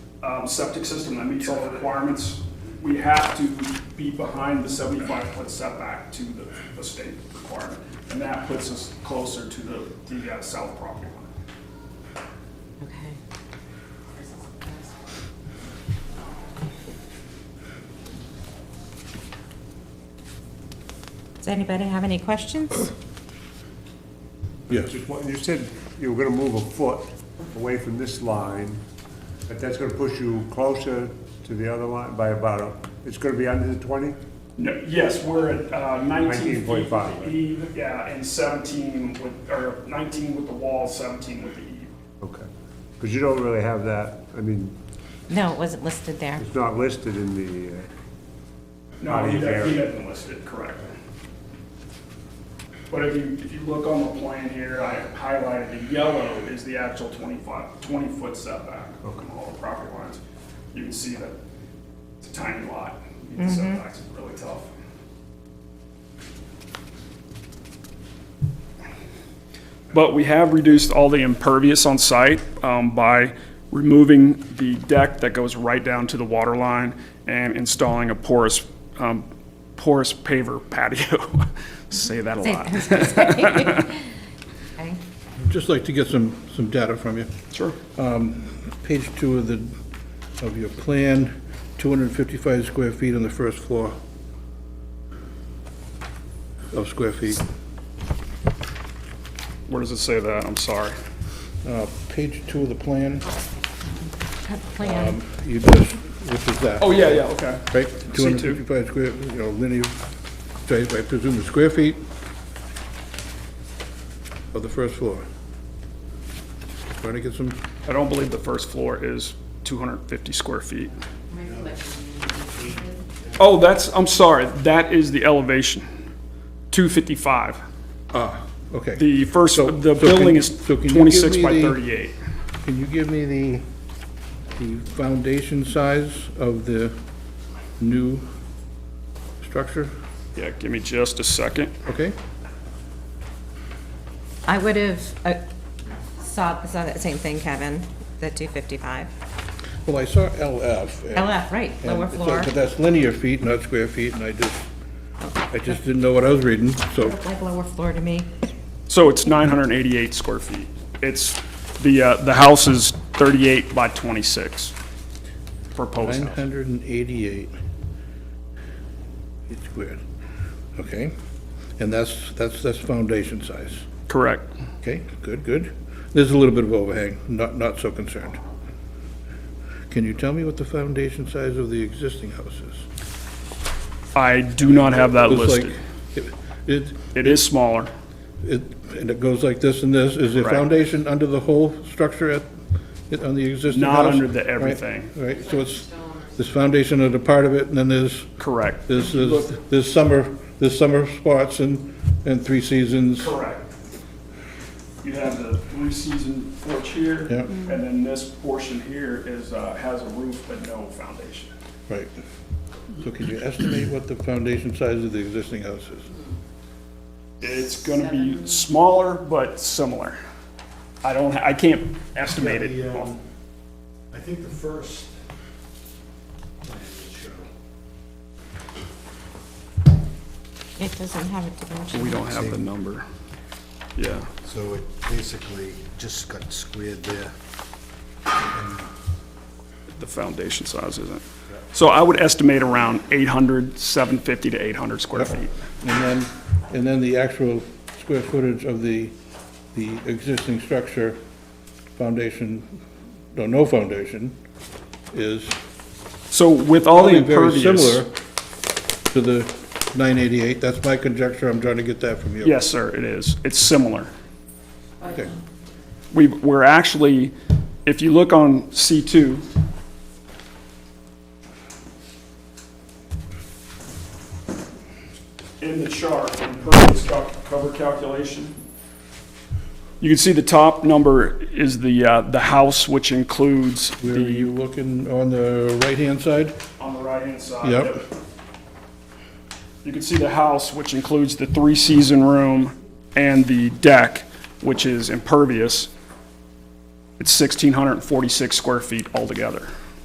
um, septic system that meets all the requirements, we have to be behind the seventy-five foot setback to the, the state requirement. And that puts us closer to the, the uh, south property line. Okay. Does anybody have any questions? Yes. You said you were gonna move a foot away from this line, but that's gonna push you closer to the other line by about, a- it's gonna be under the twenty? No, yes, we're at uh, nineteen feet with 19.5, the right. eve, yeah, and seventeen with, or nineteen with the wall, seventeen with the E. eve. Okay. Because you don't really have that, I mean, No, it wasn't listed there. it's not listed in the, uh, No, Not he in doesn't, he there. doesn't list it correctly. But if you, if you look on the plan here, I highlighted the yellow is the actual 25 20-foot setback from all the property lines. You can see that it's a tiny lot. The setbacks is really tough. But we have reduced all the impervious on site um, by removing the deck that goes right down to the water line and installing a porous, um, porous paver patio. Say that a lot. Okay. I'd just like to get some, some data from you. Sure. Page two of the, of your plan, 255 square feet on the first floor of square feet. Where does it say that? I'm sorry. Uh, Page two of the plan, Plan. you just, which is that, Oh, yeah, yeah, okay. right? C two. 255 square, you know, linear, so I I presume the square feet of the first floor. Trying to get some, I don't believe the first floor is 250 square feet. Oh, that's, I'm sorry, that is the elevation, 255. ah, okay. The first, So- the so can- building is so can you give 26 me by the- 38. Can you give me the, the foundation size of the new structure? Yeah, give me just a second. Okay? I would have uh, saw, saw that same thing, Kevin, the 255. Well, I saw LF. and- LF, right, and lower so- floor. But that's linear feet, not square feet, and I just, I just didn't know what I was reading, so, Looked Like lower floor to me. So it's 988 square feet. It's, the, uh, the house is 38 by 26, proposed house. 988 feet squared. Okay? And that's, that's, that's foundation size. Correct. Okay, good, good. There's a little bit of overhang, not, not so concerned. Can you tell me what the foundation size of the existing house is? I do not have that Looks like listed. It, it- It is smaller. it, and it goes like this and this, is the Right. foundation under the whole structure at, it- on the existing house? Not under the Right, everything. Right, so it's, this foundation under part of it, and then there's, Correct. there's, there's there's summer, there's summer spots and, and three seasons. Correct. You have the three-season porch here. Yeah. And then this portion here is, uh, has a roof but no foundation. Right. So can you estimate what the foundation size of the existing house is? It's gonna be smaller but similar. I don't, I can't estimate Yeah, it. the, off- um, I think the first plan would show, It doesn't have a dimension. We don't have the number. Yeah. so it basically just got squared there. the foundation size isn't. So I would estimate around 800, 750 to 800 square feet. And then, and then the actual square footage of the, the existing structure, foundation, no, no foundation, is So with all the probably very impervious. similar to the 988. That's my conjecture. I'm trying to get that from you. Yes, sir, it is. It's similar. Okay. We, we're actually, if you look on C2, in the chart, in impervious cal- cover calculation, you can see the top number is the, uh, the house, which includes Where are the, you looking on the right-hand side? on the right-hand side. Yep. You can see the house, which includes the three-season room and the deck, which is impervious. It's 1,646 square feet altogether.